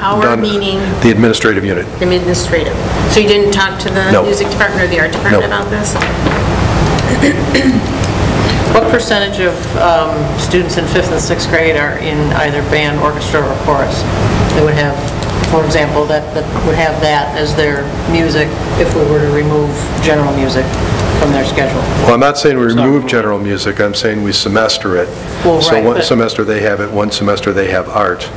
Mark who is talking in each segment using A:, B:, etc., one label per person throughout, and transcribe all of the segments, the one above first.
A: Our
B: done-
A: meaning
B: The administrative unit.
A: administrative. So you didn't talk to the
B: No.
A: music department or the art department
B: No.
A: about this?
C: What percentage of um, students in fifth and sixth grade are in either band, orchestra, or chorus? They would have, for example, that, that would have that as their music if we were to remove general music from their schedule.
B: Well, I'm not saying we remove general music, I'm saying we semester it.
C: Well,
B: So
C: right,
B: one
C: but-
B: semester they have it, one semester they have art.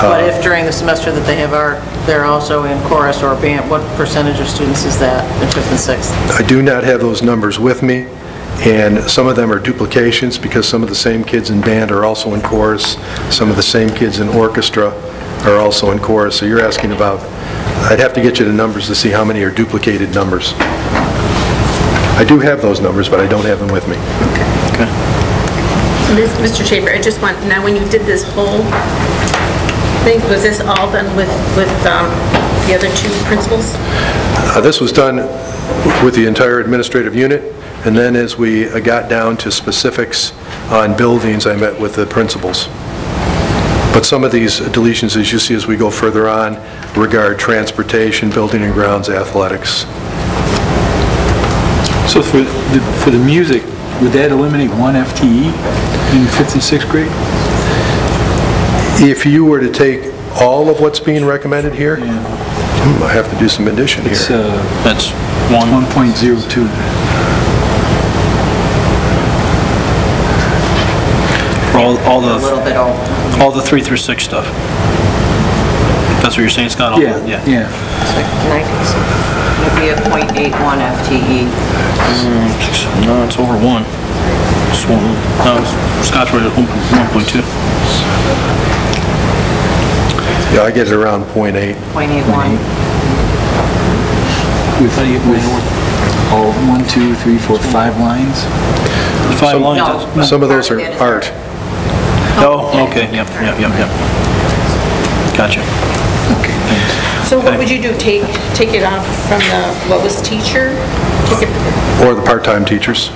C: But if during the semester that they have art, they're also in chorus or band, what percentage of students is that in fifth and sixth?
B: I do not have those numbers with me, and some of them are duplications because some of the same kids in band are also in chorus, some of the same kids in orchestra are also in chorus. So you're asking about, I'd have to get you the numbers to see how many are duplicated numbers. I do have those numbers, but I don't have them with me.
A: Mis- Mr. Schaefer, I just want, now when you did this whole thing, was this all done with, with um, the other two principals?
B: Uh, This was done with the entire administrative unit, and then as we uh, got down to specifics on buildings, I met with the principals. But some of these deletions, as you see as we go further on, regard transportation, building and grounds, athletics.
D: So for the, for the music, would that eliminate one FTE in fifth and sixth grade?
B: If you were to take all of what's being recommended here, hmm, I have to do some addition
D: It's
B: here.
D: uh,
E: That's one,
D: 1.02.
E: for all, all
C: A little
E: the,
C: bit old.
E: all the three through six stuff. That's what you're saying, Scott? All-
D: Yeah, yeah.
C: It's like 90s. It'd be a .81 FTE.
E: Six- No, it's over one. It's one, no, it's- Scott's right at one, one point two.
B: Yeah, I get it around .8.
C: .81.
D: With, with all one, two, three, four, five lines?
E: The Five lines, that's-
B: Some of those are
C: Part of that
B: art.
C: is
E: oh, okay, yep, yep, yep, yep. Gotcha.
D: Okay, thanks.
A: So what would you do, take, take it off from the, what was teacher? Take it-
B: Or the part-time teachers.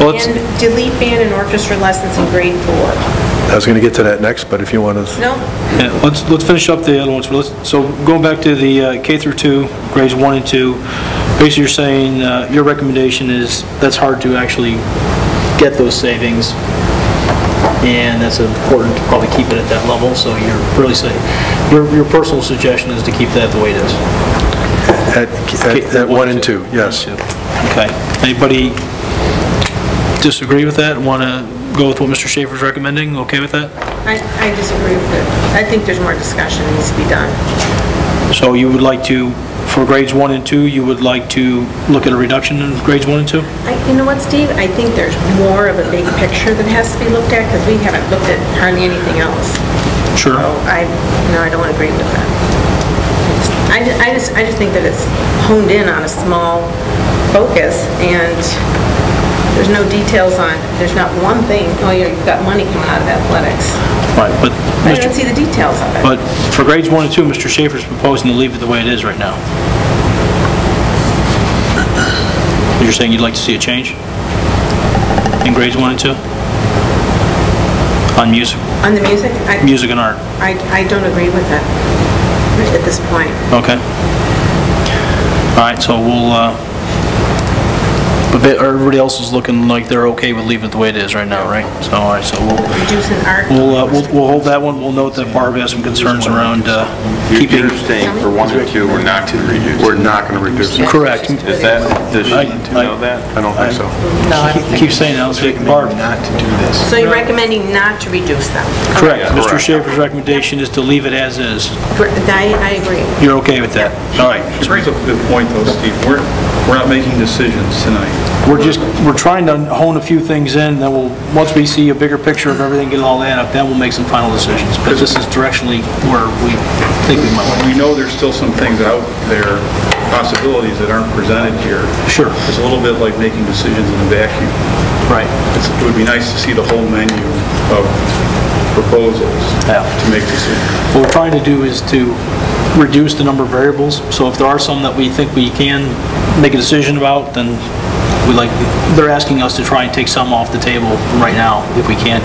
E: Well, it's,
A: And delete band and orchestra lessons in grade four?
B: I was going to get to that next, but if you want to...
A: No?
E: yeah, let's, let's finish up the other ones. Let's- So going back to the uh, K through two, grades one and two, basically you're saying, uh, your recommendation is that's hard to actually get those savings. And that's important to probably keep it at that level, so you're really saying, your, your personal suggestion is to keep that the way it is.
B: At at- at 1 and 2, yes.
E: Okay. Anybody disagree with that? Want to go with what Mr. Schaefer's recommending? Okay with that?
A: I, I disagree with it. I think there's more discussion needs to be done.
E: So you would like to, for grades one and two, you would like to look at a reduction in grades one and two?
A: I- You know what, Steve? I think there's more of a big picture that has to be looked at because we haven't looked at hardly anything else.
E: Sure.
A: So I, no, I don't agree with that. I ju- I just, I just think that it's honed in on a small focus and there's no details on, there's not one thing, oh, yeah, you've got money coming out of athletics.
E: Right, but,
A: I don't
E: Mr.
A: see the details of it.
E: but for grades one and two, Mr. Schaefer's proposing to leave it the way it is right now. You're saying you'd like to see a change in grades one and two? On music,
A: On the music, I,
E: music and art?
A: I I don't agree with it at this point.
E: Okay. All right, so we'll, uh, but they- everybody else is looking like they're okay with leaving it the way it is right now, right? So, all right, so we'll,
A: Reducing art.
E: we'll, uh, we'll we'll hold that one. We'll note that Barb has some concerns around uh, keeping.
F: You're staying for one and two, we're not going to reduce. We're not going to reduce. Is
E: Correct.
F: that, does she
E: I-
F: know that?
B: I don't think so.
C: No, I don't
E: Keep
C: think,
E: saying that, I'll say Barb.
D: Not to do this.
A: So you're recommending not to reduce them?
E: Correct. Mr.
F: Correct.
E: Schaefer's recommendation is to leave it as is.
A: I, I agree.
E: You're okay with that? All right.
G: She brings up a good point, though, Steve. We're, we're not making decisions tonight.
E: We're just, we're trying to hone a few things in, then we'll, once we see a bigger picture of everything, get all that up, then we'll make some final decisions. But this is directionally where we think we might want
G: We know there's still some things out there, possibilities that aren't presented here.
E: Sure.
G: It's a little bit like making decisions in a vacuum.
E: to. Right.
G: It's- It would be nice to see the whole menu of proposals
E: Yeah.
G: to make decisions.
E: What we're trying to do is to reduce the number of variables, so if there are some that we think we can make a decision about, then we like, they're asking us to try and take some off the table right now, if we can